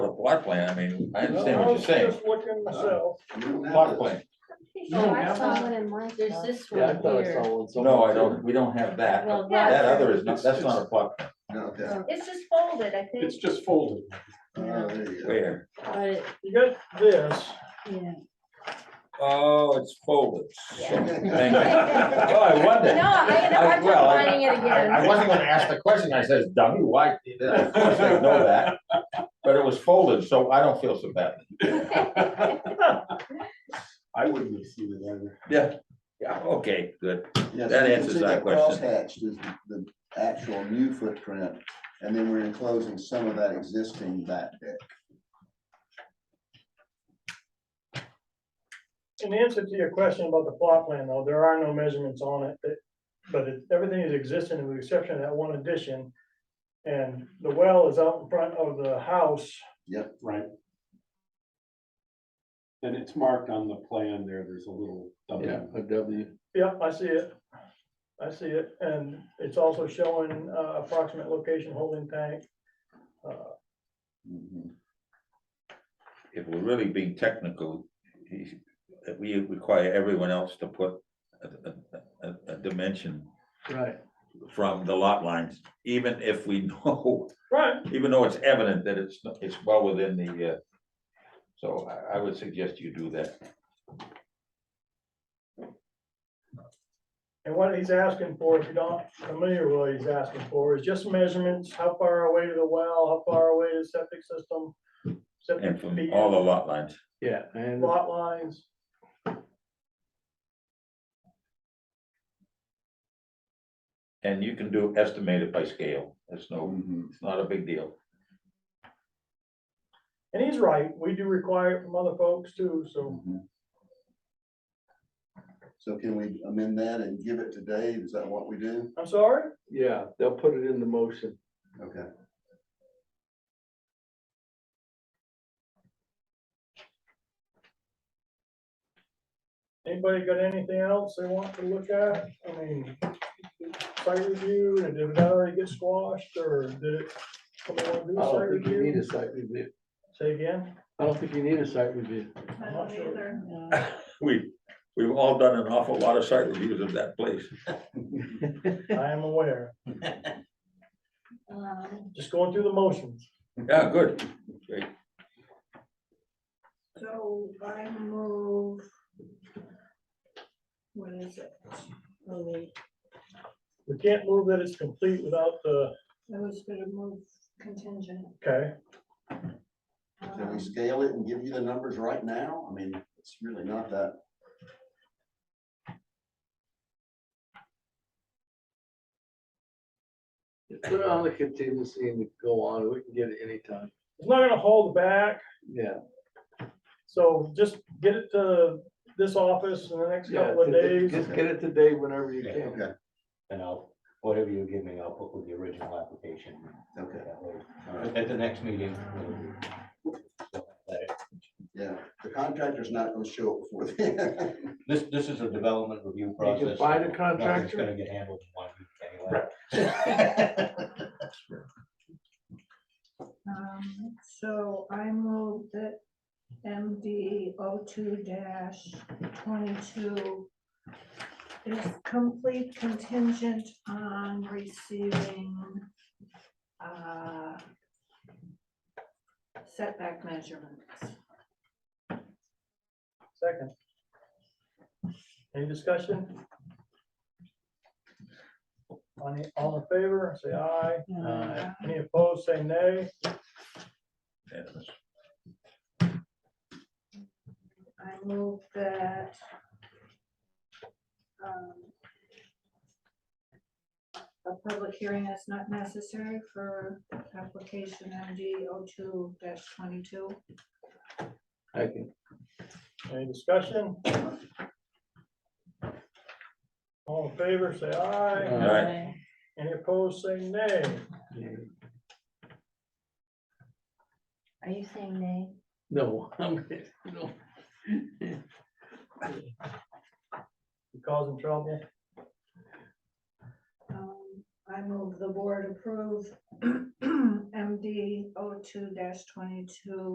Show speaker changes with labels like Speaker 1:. Speaker 1: plot plan, I mean, I understand what you're
Speaker 2: I was
Speaker 1: saying.
Speaker 2: just looking myself.
Speaker 1: Plot plan,
Speaker 3: No,
Speaker 4: I
Speaker 3: that
Speaker 4: saw
Speaker 3: one-
Speaker 4: one in my.
Speaker 3: Uh, There's this
Speaker 5: Yeah, I
Speaker 3: one
Speaker 5: thought I
Speaker 3: here.
Speaker 5: saw one. somewhere
Speaker 1: no, I
Speaker 5: too.
Speaker 1: don't, we don't have that,
Speaker 3: Well,
Speaker 1: that
Speaker 3: that's-
Speaker 1: other is not, that's not a plot, plan.
Speaker 6: No, that-
Speaker 4: It's just folded, I think.
Speaker 7: It's just folded.
Speaker 6: oh, there you go.
Speaker 1: where,
Speaker 3: but it-
Speaker 2: You got this,
Speaker 3: yeah.
Speaker 1: oh, it's folded.
Speaker 4: Yeah.
Speaker 1: Thank you. Oh, I wondered.
Speaker 4: No, I had a
Speaker 1: I-
Speaker 4: hard time
Speaker 1: well, I-
Speaker 4: finding it
Speaker 1: I
Speaker 4: again.
Speaker 1: I wasn't gonna ask the question, I says, dummy, why? Of course they know that, but it was folded, so I don't feel so bad.
Speaker 7: I wouldn't have seen it either.
Speaker 1: Yeah, yeah, okay, good.
Speaker 6: Yeah, so
Speaker 1: That
Speaker 6: you can
Speaker 1: answers
Speaker 6: see
Speaker 1: that
Speaker 6: that
Speaker 1: question.
Speaker 6: Crosshatched is the- the actual new footprint, and then we're enclosing some of that existing back deck.
Speaker 2: in answer to your question about the plot plan though, there are no measurements on it, it- but it, everything is existing with the exception of that one addition. And the well is out in front of the house.
Speaker 7: Right. And it's marked on the plan there, there's a little.
Speaker 5: Yeah,
Speaker 7: W.
Speaker 5: a W.
Speaker 2: Yep, I see it. I see it, and it's also showing uh, approximate location holding tank. Uh,
Speaker 6: Mhm.
Speaker 1: If we're really being technical, he- that we require everyone else to put a- a- a- a dimension
Speaker 5: Right.
Speaker 1: from the lot lines, even if we know
Speaker 2: Right,
Speaker 1: even though it's evident that it's, it's well within the, uh, so I, I would suggest you do that.
Speaker 2: and what he's asking for, if you're not familiar with what he's asking for, is just measurements, how far away to the well, how far away to the septic system.
Speaker 1: And
Speaker 2: Septic
Speaker 1: from
Speaker 2: field,
Speaker 1: all the lot lines,
Speaker 5: Yeah, and
Speaker 2: Lot lines,
Speaker 1: and you can do estimate it by scale, it's no,
Speaker 6: Mhm.
Speaker 1: it's not a big deal.
Speaker 2: and he's right, we do require it from other folks too, so
Speaker 6: Mhm. So can we amend that and give it to Dave? Is that what we do?
Speaker 2: I'm sorry,
Speaker 5: yeah, they'll put it in the motion.
Speaker 6: Okay.
Speaker 2: anybody got anything else they want to look at? I mean, site review, and did it already get squashed, or did it? somebody wanna do
Speaker 5: I
Speaker 2: site
Speaker 5: don't think you need
Speaker 2: review?
Speaker 5: a site review.
Speaker 2: Say again?
Speaker 5: I don't think you need a site review.
Speaker 2: I'm not sure.
Speaker 3: Yeah.
Speaker 1: We, we've all done an awful lot of site reviews of that place.
Speaker 2: I am aware,
Speaker 3: Um,
Speaker 2: just going through the motions.
Speaker 1: Yeah, good,
Speaker 4: So I move. What is it? Oh, wait,
Speaker 2: We can't move that it's complete without the,
Speaker 4: I was gonna move contingent.
Speaker 2: okay,
Speaker 6: Can
Speaker 4: um,
Speaker 6: we scale it and give you the numbers right now? I mean, it's really not that.
Speaker 5: Put it on the contingency and go on, we can get it anytime,
Speaker 2: it's not gonna hold back,
Speaker 5: yeah.
Speaker 2: so just get it to this office in the next
Speaker 5: yeah,
Speaker 2: couple of
Speaker 5: to-
Speaker 2: days.
Speaker 5: Just get it today whenever you can.
Speaker 6: Okay,
Speaker 8: And I'll, whatever you give me, I'll put with the original application.
Speaker 6: okay,
Speaker 8: That way, At the next meeting. we'll-
Speaker 6: yeah. The contractor's not gonna show up before then.
Speaker 8: This, this is a development review process.
Speaker 5: find a
Speaker 8: so Nothing's
Speaker 5: contractor?
Speaker 8: gonna get handled in one week
Speaker 9: Um, so I moved that MD 2 twenty-two is complete contingent on receiving, uh, setback measurements.
Speaker 2: Second. Any discussion? On the, all in favor, say aye.
Speaker 3: uh,
Speaker 2: Any opposed, say nay.
Speaker 1: And
Speaker 9: I move that. um, A public hearing is not necessary for application MD 2 twenty-two.
Speaker 5: I can,
Speaker 2: Any discussion? All in favor, say aye.
Speaker 1: All right,
Speaker 2: Any opposed, say nay.
Speaker 3: Are you saying nay?
Speaker 5: no, I'm, no,
Speaker 2: You causing trouble?
Speaker 9: Um, I move the board approve MD 2 twenty-two